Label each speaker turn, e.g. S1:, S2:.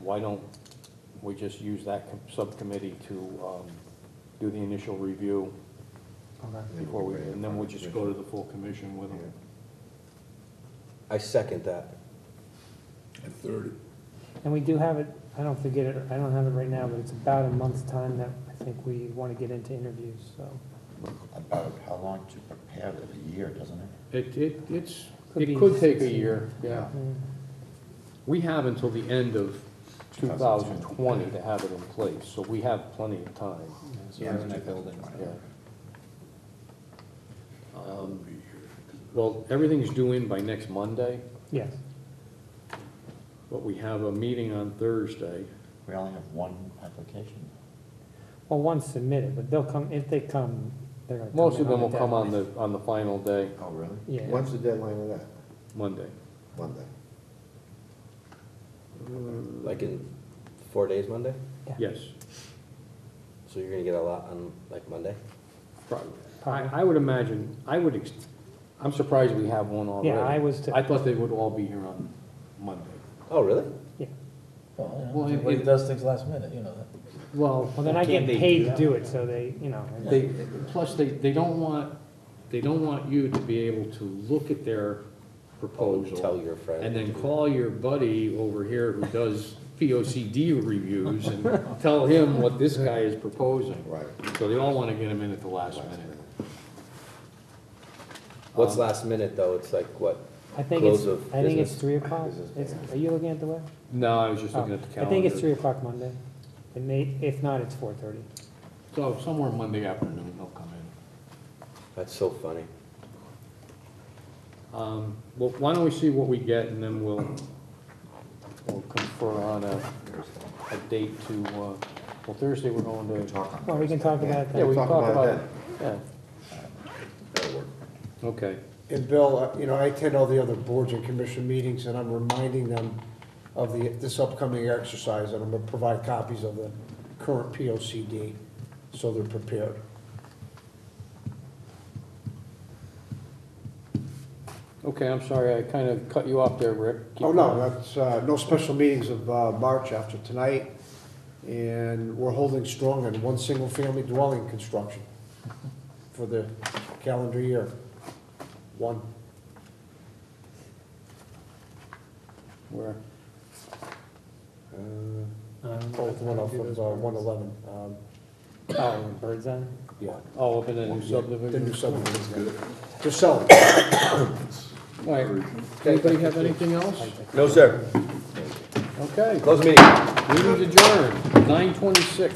S1: why don't we just use that com- subcommittee to um, do the initial review before we, and then we'll just go to the full commission with them.
S2: I second that.
S3: At thirty.
S4: And we do have it, I don't forget it, I don't have it right now, but it's about a month's time that I think we want to get into interviews, so.
S5: About how long to prepare it, a year, doesn't it?
S1: It, it, it's,
S4: Could
S1: it
S4: be
S1: could take a
S4: 16.
S1: year, yeah.
S4: mm.
S1: We have until the end of two thousand twenty to have it in place, so we have plenty of time,
S2: Yeah, in that building.
S1: yeah. Um, Well, everything's due in by next Monday,
S4: Yes,
S1: but we have a meeting on Thursday.
S5: We only have one application.
S4: well, one's submitted, but they'll come, if they come, they're going to.
S1: Most of them will come on the, on the final day,
S5: Oh, really?
S4: Yeah,
S6: When's the deadline of that?
S1: Monday.
S6: Monday?
S2: Like in four days Monday?
S1: Yes,
S2: So you're gonna get a lot on like Monday?
S1: probably. I, I would imagine, I would, ex- I'm surprised we have one already.
S4: yeah, I was, to-
S1: I thought they would all be here on Monday.
S2: Oh, really?
S4: yeah.
S1: Well,
S7: Well,
S1: it-
S7: everybody
S1: it-
S7: does things last minute, you know that.
S1: Well,
S4: Well, then I get paid to do it, so they, you know. I-
S1: They, plus, they, they don't want, they don't want you to be able to look at their proposal.
S2: Tell your friend.
S1: And then call your buddy over here who does P O C D reviews and tell him what this guy is proposing.
S6: Right.
S1: So they all want to get him in at the last minute.
S2: What's last minute though? It's like what?
S4: I think it's,
S2: Close of
S4: I think it's
S2: business.
S4: three o'clock.
S5: Business,
S4: It's- Are you looking at the web?
S1: No, I was just looking
S4: Oh,
S1: at the
S4: I
S1: calendar.
S4: think it's three o'clock Monday. It may, if not, it's four thirty.
S1: So somewhere Monday afternoon, they'll come in.
S2: That's so funny.
S1: Um, Well, why don't we see what we get, and then we'll, we'll confer on a, a date to, uh, well, Thursday we're going to.
S5: Talk on
S4: Well, we can
S5: Thursday.
S4: talk about
S1: Yeah,
S4: that.
S1: we can talk about it.
S6: then.
S1: Yeah,
S5: That'll work.
S1: okay.
S3: And Bill, uh, you know, I attend all the other boards and commission meetings, and I'm reminding them of the, this upcoming exercise, and I'm gonna provide copies of the current P O C D, so they're prepared.
S1: Okay, I'm sorry, I kind of cut you off there, Rick. Keep
S3: Oh, no,
S1: going.
S3: that's, uh, no special meetings of, uh, March after tonight, and we're holding strong on one single-family dwelling construction for the calendar year. One,
S1: We're,
S3: uh, both one of, them, uh, one eleven, um,
S4: Oh, Birds Eye?
S3: yeah.
S1: oh, up in the new
S3: The new
S1: subdivision.
S3: subdivision's good. They're selling.
S1: All right, anybody have anything else?
S2: No, sir.
S1: Okay,
S2: Close the meeting.
S1: meeting's adjourned, nine twenty-six.